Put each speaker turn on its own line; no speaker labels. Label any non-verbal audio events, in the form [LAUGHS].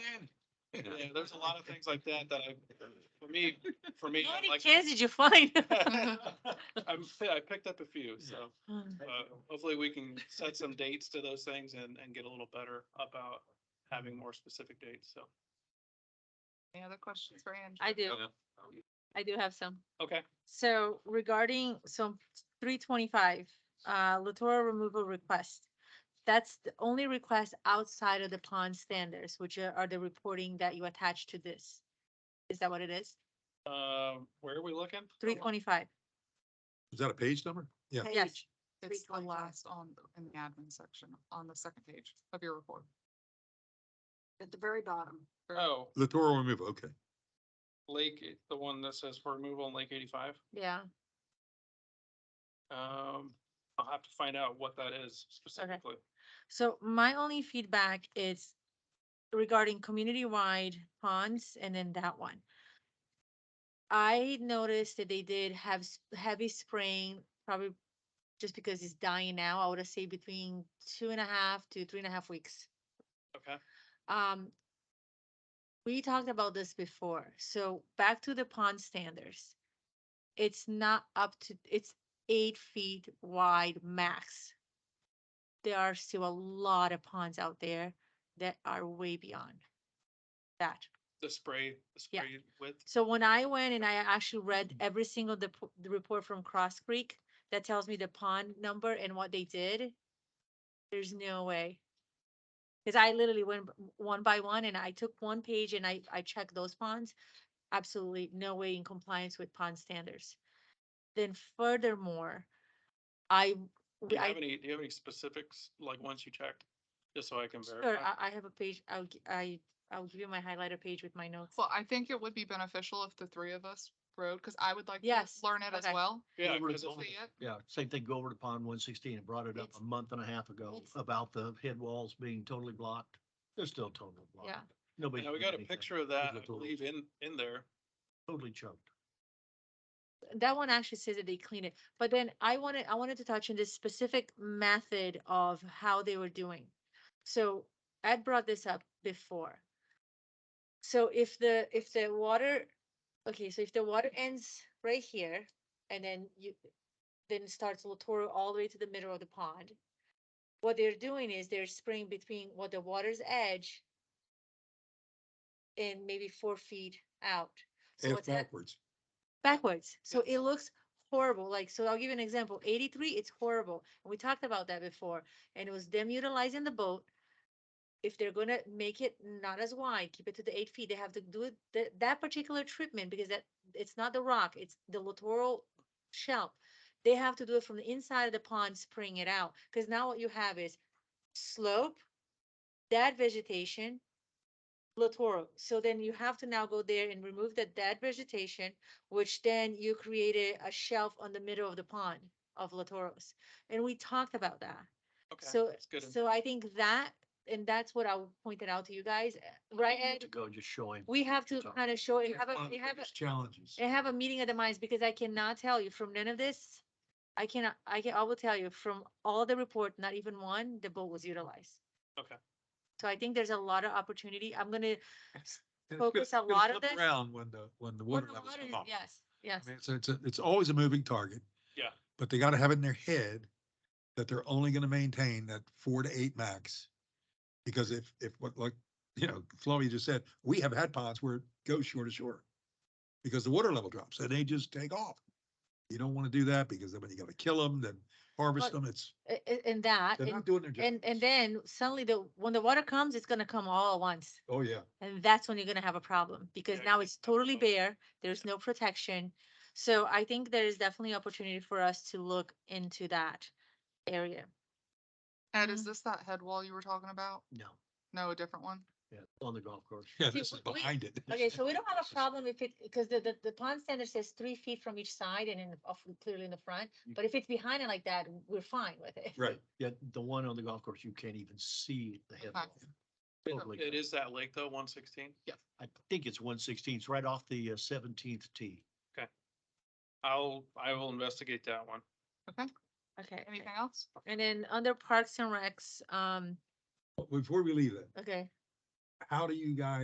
Yeah, there's a lot of things like that that I, for me, for me,
How
I'm
many
like.
cans did you find?
[LAUGHS]
[LAUGHS]
I'm, fi- I picked up a few, so, uh, hopefully we can set some dates to those things and, and get a little better about having more specific dates, so.
Any other questions for Andrew?
I do,
Yeah.
I do have some.
Okay,
So regarding some three twenty-five, uh, littoral removal request. That's the only request outside of the pond standards, which are are the reporting that you attach to this. Is that what it is?
uh, where are we looking?
Three twenty-five?
Is that a page number? Yeah.
Yes.
It's
Three
the
twenty-five.
last on, in the admin section, on the second page of your report.
At the very bottom.
Oh,
Littoral removal, okay.
Lake, the one that says for removal on Lake eighty-five.
Yeah,
Um, I'll have to find out what that is specifically.
so my only feedback is regarding community-wide ponds and then that one. I noticed that they did have s- heavy spraying, probably just because it's dying now, I would say between two and a half to three and a half weeks.
Okay,
Um, we talked about this before, so back to the pond standards. It's not up to, it's eight feet wide max. There are still a lot of ponds out there that are way beyond that.
the spray, the
Yeah.
spray width.
So when I went and I actually
Mm-hmm.
read every single the, the report from Cross Creek that tells me the pond number and what they did, there's no way. Cause I literally went b- one by one and I took one page and I, I checked those ponds. Absolutely no way in compliance with pond standards. Then furthermore, I,
Do
we-
you
I
have any, do you have any specifics, like once you checked, just so I can
Sure, uh,
verify?
I, I have a page, I'll, gi- I, I'll give you my highlighter page with my notes.
Well, I think it would be beneficial if the three of us rode, because I would like to
Yes,
learn it as
okay.
well.
Yeah,
Over to
'cause
to
if
Gold.
we-
see it.
Yeah, same thing, go over to pond one sixteen, and brought it up
It's-
a month and a half ago
it's-
about the head walls being totally blocked. They're still totally blocked.
Yeah.
Nobody.
Yeah, we
did
got a
anything.
picture of that, I
Little-
believe, in, in there.
Totally choked.
that one actually says that they clean it, but then I wanted, I wanted to touch on this specific method of how they were doing. So Ed brought this up before. So if the, if the water, okay, so if the water ends right here and then you, then starts Latour all the way to the middle of the pond. What they're doing is they're spraying between what the water's edge and maybe four feet out. So
Half
what's hap-
backwards.
backwards. So it looks horrible. Like, so I'll give you an example. Eighty-three, it's horrible. And we talked about that before. And it was them utilizing the boat. If they're gonna make it not as wide, keep it to the eight feet, they have to do it, that, that particular treatment because that, it's not the rock, it's the littoral shelf. They have to do it from the inside of the pond, spraying it out. Cause now what you have is slope, dead vegetation, littoral. So then you have to now go there and remove the dead vegetation, which then you created a shelf on the middle of the pond of Latoros. And we talked about that.
Okay,
So,
that's good.
so I think that, and that's what I pointed out to you guys, eh, right?
To
Ed?
go, just showing.
We have to
talk.
kind of show, and have a,
One of the
and have a,
biggest Challenges.
and have a meeting of the minds because I cannot tell you from none of this. I cannot, I can, I will tell you from all the report, not even one, the boat was utilized.
Okay.
So I think there's a lot of opportunity. I'm gonna,
And it's
focus
gonna-
a
gonna
lot of
flip
this-
Around when the, when the
when
water
the
levels
water
come
is-
up.
yes,
I
yes.
mean, So it's, a- it's always a moving target.
Yeah.
But they gotta have it in their head that they're only gonna maintain that four to eight max. Because if, if what, like, you know, Flavia just said, we have had ponds where it goes shore to shore. Because the water level drops and they just take off. You don't wanna do that because then when you gotta kill them, then harvest
But-
them, it's,
a- a- And that,
they're
uh, and,
not doing their job.
and, and then suddenly the, when the water comes, it's gonna come all at once.
Oh, yeah.
And that's when you're gonna have a problem, because
Yeah,
now
you
it's totally
know.
bare, there's no protection. So I think there is definitely opportunity for us to look into that area.
Ed,
Mm-hmm.
is this that head wall you were talking about?
No,
No, a different one?
yeah, on the golf course.
Yeah,
See,
this is
we- we-
behind it.
Okay, so we don't have
[LAUGHS]
a problem if it, because the, the, the pond standard says three feet from each side and in, off, clearly in the front,
Mm.
You-
but if it's behind it like that, we're fine with it.
Right.
Yeah, the one on the golf course, you can't even see the head
Okay.
wall. Totally.
It
gone.
is that lake though, one sixteen.
I think it's one sixteen, it's right off the uh, seventeenth tee.
I'll, I will investigate that one.
[LAUGHS] Okay,
Anything else?
and then under parks and recs, um,
Before we leave it,
okay.
how do you guys